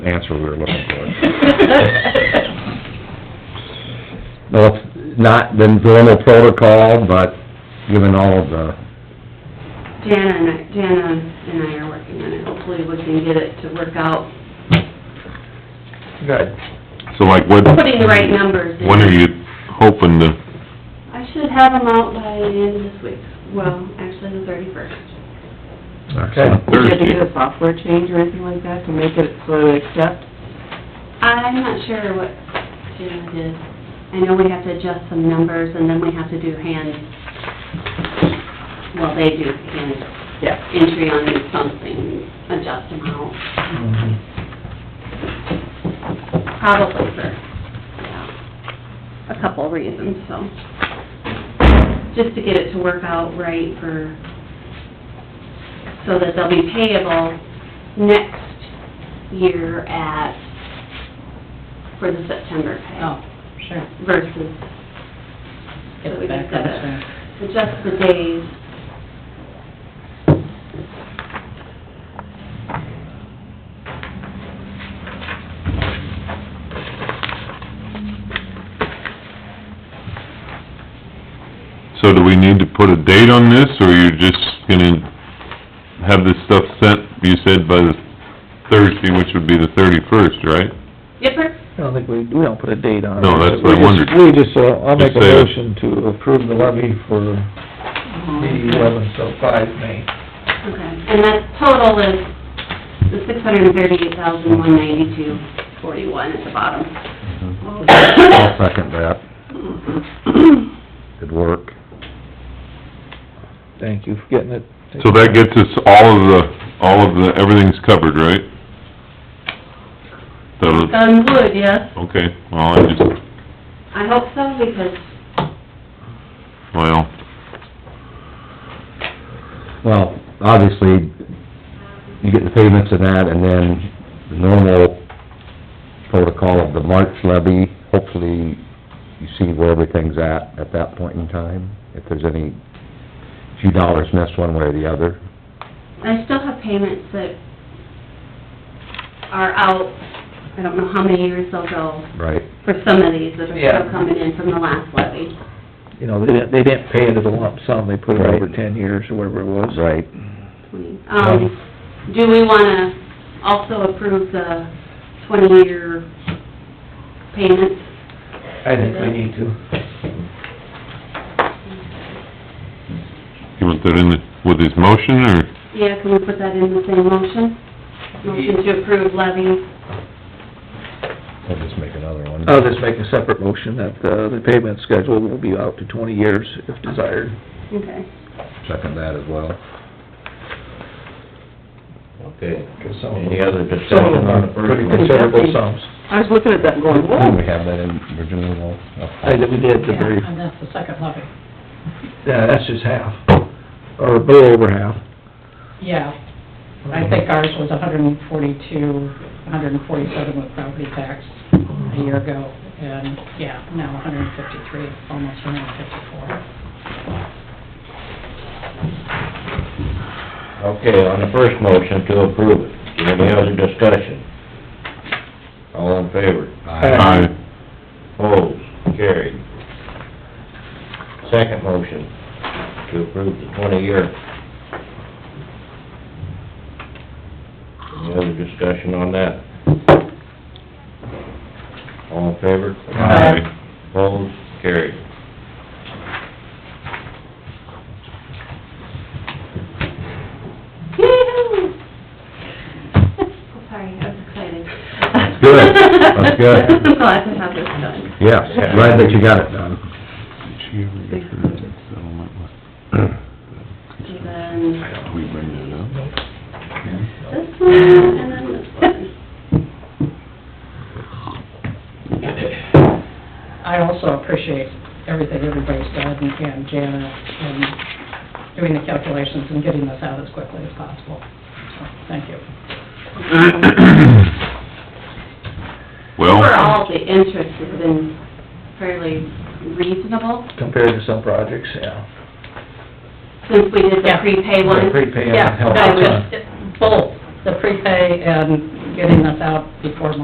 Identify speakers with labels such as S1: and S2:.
S1: answer we were looking for.
S2: Well, it's not the normal protocol, but given all of the,
S3: Jana and I, Jana and I are working on it, hopefully we can get it to work out,
S2: Good.
S4: So like when,
S3: putting the right numbers in.
S4: when are you hoping to,
S3: I should have them out by the end of this week, well, actually the thirty-first.
S2: Excellent.
S5: You had to
S4: Thursday?
S5: do a software change or anything like that to make it so they accept?
S3: I'm not sure what Jana did, I know we have to adjust some numbers, and then we have to do hand, well, they do hand
S5: Yeah.
S3: entry on something, adjust them out, probably for, yeah, a couple reasons, so. Just to get it to work out right for, so that they'll be payable next year at, for the September
S6: Oh,
S3: pay
S6: sure.
S3: versus.
S6: Get
S3: so
S6: the
S3: we
S6: back
S3: just
S6: on
S3: gotta
S6: track.
S3: Adjust the days.
S4: So do we need to put a date on this, or you're just gonna have this stuff sent, you said by the Thursday, which would be the thirty-first, right?
S3: Yep, or-
S7: I don't think we, we don't put a date on it.
S4: No, that's what I
S7: We just-
S4: wondered.
S7: We just, uh, I'll make a
S4: Just say it.
S7: motion to approve the levy for the eleven, so five May.
S3: Okay, and that total is the six hundred and thirty-eight thousand, one ninety-two, forty-one at the bottom.
S2: I'll second that. Good work.
S7: Thank you for getting it.
S4: So that gets us all of the, all of the, everything's covered, right? So,
S3: Done wood, yes.
S4: okay, well, I just,
S3: I hope so, because
S4: well,
S2: Well, obviously, you get the payments and that, and then the normal protocol of the March levy, hopefully you see where everything's at, at that point in time, if there's any few dollars missed one way or the other.
S3: I still have payments that are out, I don't know how many years they'll go,
S2: Right.
S3: for some of these that are
S7: Yeah.
S3: still coming in from the last levy.
S7: You know, they didn't, they didn't pay it as a lump sum, they put it
S2: Right.
S7: over ten years or whatever it was.
S2: Right.
S3: Um, do we wanna also approve the twenty-year payments?
S7: I think we need to.
S4: you want that in the- with his motion, or?
S3: Yeah, can we put that in the same motion? Motion to approve levy,
S2: We'll just make another one.
S7: I'll just make a separate motion that, uh, the payment schedule will be out to twenty years if desired.
S3: okay.
S2: Second that as well.
S8: Okay,
S7: So-
S8: any other discussion on the first
S7: Pretty
S8: one?
S7: considerable sums.
S5: I was looking at that and going,
S2: Didn't
S5: whoa.
S2: we have that in Virginia law?
S7: I, we did the very,
S6: Yeah, and that's the second levy.
S7: yeah, that's just half, or a little over half.
S6: Yeah, I think ours was a hundred and forty-two, hundred and forty-seven with property tax a year ago, and, yeah, now hundred and fifty-three, almost hundred and fifty-four.
S8: Okay, on the first motion to approve it, any other discussion? All in favor?
S7: Aye.
S8: Opposed, carried. Second motion to approve the twenty-year. Any other discussion on that? All in favor?
S4: Aye.
S8: Opposed, carried.
S3: Yee-hoo! I'm Sorry, I was excited. That's
S2: good. That's good.
S3: I'm glad to have this done.
S2: Yes, glad that you got it done.
S4: Did she ever
S3: get her
S4: settlement
S3: And then
S4: we bring that up?
S3: this one, and then this one.
S6: I also appreciate everything everybody's done, and Jana, and doing the calculations and getting this out as quickly as possible. So, Thank you.
S4: Well,
S3: Overall, the interest has been fairly reasonable
S7: compared to some projects, yeah.
S3: since we did the
S6: Yeah.
S3: prepay one.
S7: The prepay and
S6: Yeah,
S7: help
S6: no,
S7: us,
S6: just both, the prepay and getting us out before